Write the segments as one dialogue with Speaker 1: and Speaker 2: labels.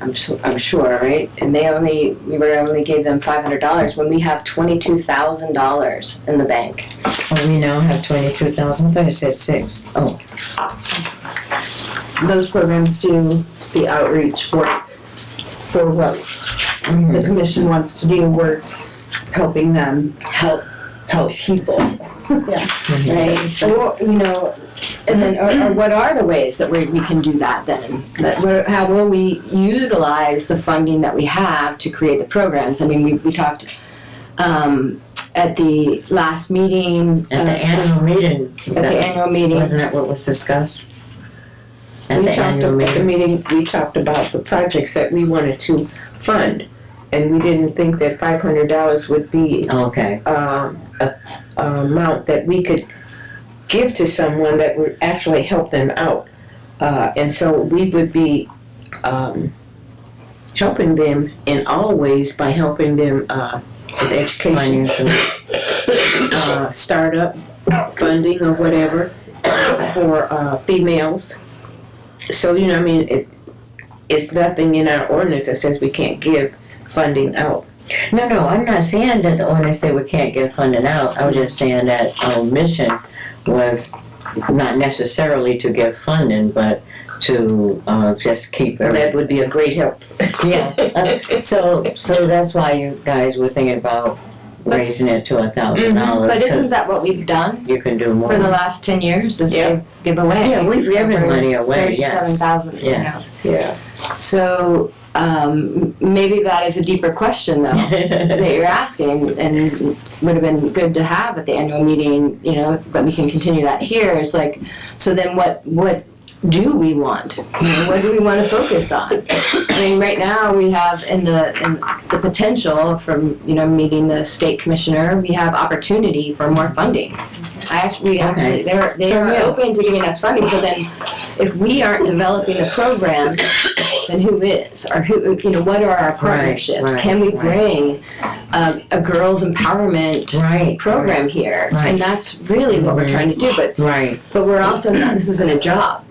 Speaker 1: I'm, su- I'm sure, right? And they only, we were only gave them five hundred dollars when we have twenty-two thousand dollars in the bank.
Speaker 2: Well, Oh, we now have twenty-two thousand, I thought it said six. Oh,
Speaker 3: Those programs do the outreach work for what
Speaker 2: mhm.
Speaker 3: the commission wants to do, work helping them
Speaker 1: Help
Speaker 3: help.
Speaker 1: people, right? Or, you know, and then, or, or what are the ways that we, we can do that then? That we're, how will we utilize the funding that we have to create the programs? I mean, we, we talked, um, at the last meeting,
Speaker 2: At the
Speaker 1: uh,
Speaker 2: annual meeting,
Speaker 1: at the
Speaker 2: that-
Speaker 1: annual meeting,
Speaker 2: wasn't it what was discussed? At
Speaker 4: We
Speaker 2: the
Speaker 4: talked
Speaker 2: annual
Speaker 4: about the
Speaker 2: meeting,
Speaker 4: meeting, we talked about the projects that we wanted to fund. And we didn't think that five hundred dollars would be
Speaker 2: Oh, okay,
Speaker 4: um, a, a amount that we could give to someone that would actually help them out. Uh, and so we would be um, helping them in all ways by helping them uh, with education,
Speaker 2: financial,
Speaker 4: uh, startup funding or whatever for uh, females. So, you know, I mean, it, it's nothing in our ordinance that says we can't give funding out.
Speaker 2: no, no, I'm not saying that, when I say we can't get funding out, I was just saying that our mission was not necessarily to get funding, but to, uh, just keep everything.
Speaker 4: That would be a great help.
Speaker 2: Yeah, uh, so, so that's why you guys were thinking about raising it to a thousand dollars,
Speaker 1: Mm-hmm. but isn't
Speaker 2: cause
Speaker 1: that what we've done?
Speaker 2: you can do more.
Speaker 1: for the last ten years is
Speaker 4: Yeah.
Speaker 1: they've give away.
Speaker 2: Yeah, we've given money away,
Speaker 1: Thirty-seven
Speaker 2: yes.
Speaker 1: thousand.
Speaker 2: Yes.
Speaker 4: Yeah.
Speaker 1: So um, m- maybe that is a deeper question though that you're asking, and would have been good to have at the annual meeting. You know, but we can continue that here. Is like, so then what? What do we want? You know, what do we want to focus on? I mean, right now we have in the in the potential from you know meeting the state commissioner, we have opportunity for more funding. I actually, we actually, they're they
Speaker 4: So,
Speaker 1: are
Speaker 4: yeah.
Speaker 1: open to giving us funding. So then, if we aren't developing the program, then who is or who you know what are our partnerships?
Speaker 2: right,
Speaker 1: Can we
Speaker 2: right.
Speaker 1: bring a, a girls empowerment
Speaker 2: Right.
Speaker 1: program here?
Speaker 2: Right.
Speaker 1: And that's really what we're
Speaker 2: Mhm.
Speaker 1: trying to do. But
Speaker 2: Right,
Speaker 1: but we're also this isn't a job,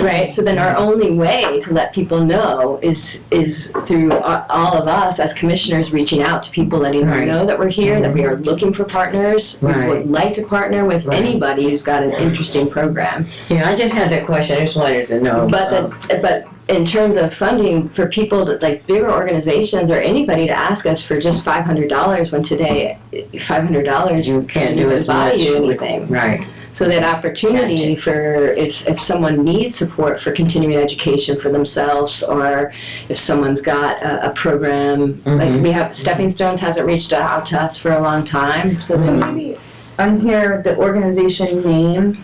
Speaker 1: right? So then our only way to let people know is is through a- all of us as commissioners reaching out to people, letting
Speaker 2: Right.
Speaker 1: them know that we're here, that we are looking for partners. We
Speaker 2: Right.
Speaker 1: would like to partner with
Speaker 2: Right.
Speaker 1: anybody who's got an interesting program.
Speaker 2: yeah, I just had that question, I just wanted to know.
Speaker 1: But
Speaker 2: um,
Speaker 1: the, but in terms of funding for people that like bigger organizations or anybody to ask us for just five hundred dollars when today five hundred dollars
Speaker 2: You can't do as
Speaker 1: buy
Speaker 2: much.
Speaker 1: you
Speaker 2: with-
Speaker 1: anything.
Speaker 2: Right,
Speaker 1: So that opportunity for if, if someone needs support for continuing education for themselves, or if someone's got a, a program,
Speaker 2: Mhm.
Speaker 1: like we have Stepping Stones hasn't reached out to us for a long time. So,
Speaker 3: So
Speaker 1: some-
Speaker 3: maybe on here, the organization name,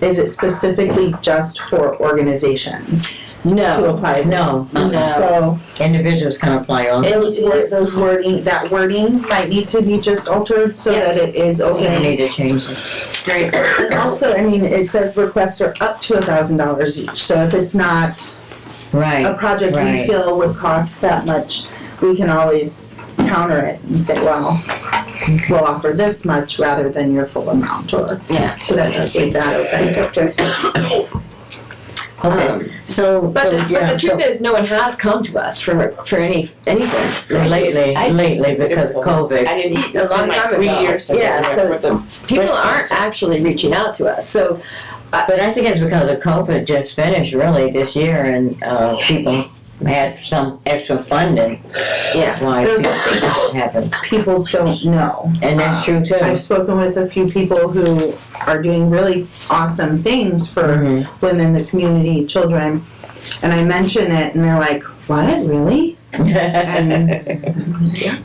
Speaker 3: is it specifically just for organizations
Speaker 2: Mm-hmm.
Speaker 3: to
Speaker 1: no,
Speaker 3: apply this?
Speaker 2: no,
Speaker 1: No.
Speaker 3: So
Speaker 2: individuals can apply also,
Speaker 3: those word, those wording, that wording might need to be just altered so
Speaker 1: Yeah.
Speaker 3: that it is
Speaker 2: we
Speaker 3: okay.
Speaker 2: need to change it.
Speaker 3: Right. And also, I mean, it says requests are up to a thousand dollars each, so if it's not a
Speaker 2: Right,
Speaker 3: project we
Speaker 2: Right.
Speaker 3: feel would cost that much, we can always counter it and say, well, we'll offer this much rather than your full amount, or,
Speaker 1: yeah.
Speaker 3: so that does leave that open.
Speaker 4: It's up to us.
Speaker 2: okay,
Speaker 1: Um,
Speaker 2: so,
Speaker 1: but,
Speaker 2: so,
Speaker 1: the, but
Speaker 2: yeah,
Speaker 1: the truth
Speaker 2: so,
Speaker 1: is, no one has come to us for for any anything.
Speaker 2: lately,
Speaker 4: I-
Speaker 2: lately, because of COVID.
Speaker 4: I didn't
Speaker 1: A long time
Speaker 4: three
Speaker 1: ago.
Speaker 4: years ago.
Speaker 1: Yeah, so
Speaker 4: with the-
Speaker 1: People
Speaker 4: Responsible.
Speaker 1: aren't actually reaching out to us. So,
Speaker 2: But I think it's because of COVID just finished really this year and uh, people had some extra funding.
Speaker 1: Yeah.
Speaker 2: Why
Speaker 3: Those-
Speaker 2: it happened.
Speaker 3: People don't know.
Speaker 2: And that's true too.
Speaker 3: I've spoken with a few people who are doing really awesome things for
Speaker 4: Mm-hmm.
Speaker 2: Mhm.
Speaker 3: women, the community, children, and I mention it, and they're like, "What, really?"
Speaker 2: That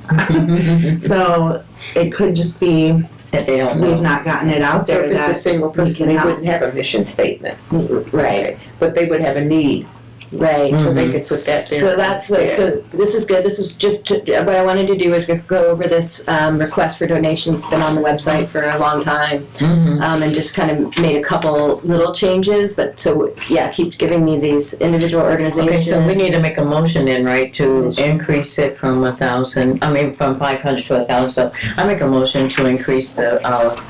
Speaker 3: So it could just be
Speaker 2: Mm-hmm. they don't
Speaker 3: we've
Speaker 2: know.
Speaker 3: not gotten it out
Speaker 4: So
Speaker 3: there
Speaker 4: if it's a
Speaker 3: that
Speaker 4: single person,
Speaker 3: we
Speaker 4: they
Speaker 3: cannot-
Speaker 4: wouldn't have a mission statement,
Speaker 1: right,
Speaker 4: Mm-hmm. but they would have a need,
Speaker 1: right.
Speaker 4: Mm-hmm. so they could put that there.
Speaker 1: Mm. So that's,
Speaker 4: there.
Speaker 1: so this is good, this is just, to- what I wanted to do is go- go over this um, request for donations, It's been on the website for a long time,
Speaker 2: Mhm.
Speaker 1: um, and just kind of made a couple little changes, but so, yeah, keep giving me these individual
Speaker 2: Okay, so we
Speaker 1: organizations.
Speaker 2: need to make a motion then, right, to increase it from a thousand, I mean, from five hundred to a thousand. So I make a motion to increase the, uh,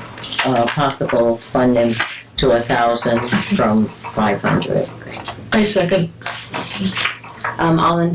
Speaker 2: uh, possible funding to a thousand from five hundred.
Speaker 5: I second.
Speaker 1: Um, All in